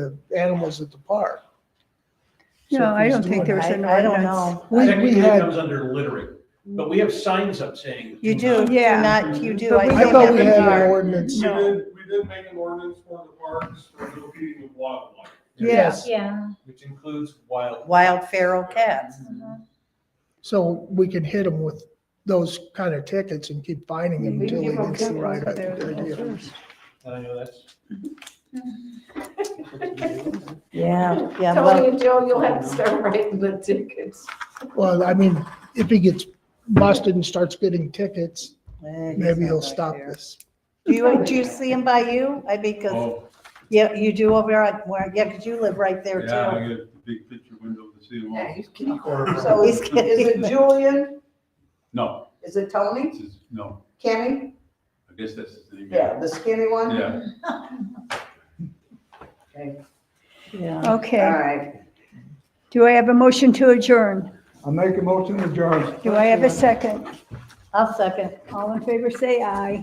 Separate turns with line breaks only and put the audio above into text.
the animals at the park. So
No,
if
I
he's
don't think
doing
there's
it-
an
I- I don't
ordinance.
know.
We-
Technically,
we
it
had,
comes under littering, but we have signs up saying.
You do, do
Yeah.
not, you do.
But we
I
think
thought
that
we
would
had
be
an
our-
ordinance.
We
No.
did, we did make an ordinance for the parks for no feeding of wildlife,
Yeah,
Yeah.
Which includes wild.
Wild feral cats.
So we can hit them with those kind of tickets and keep finding them
We
until he
give them
gets the right
cover
idea.
there.
And I know that's.
Yeah, yeah. well-
Tony and Joe, you'll have to start writing the tickets.
Well, I mean, if he gets busted and starts getting tickets,
Eh, he's
maybe
not
he'll
back
stop
there.
this.
Do you, do you see him by you? I, because,
Oh,
yeah, you do over at, where, yeah, because you live right there
yeah, I
too.
get a big picture window to see them all.
So
He's
is, is it
kidding.
Julian?
No,
Is it Tony?
this is, no,
Kenny?
I guess that's his name.
Yeah, the skinny one?
Yeah,
Okay,
Yeah.
All
Okay,
right.
do I have a motion to adjourn?
I make a motion to adjourn.
Do I have a second?
I'll second.
All in favor, say aye.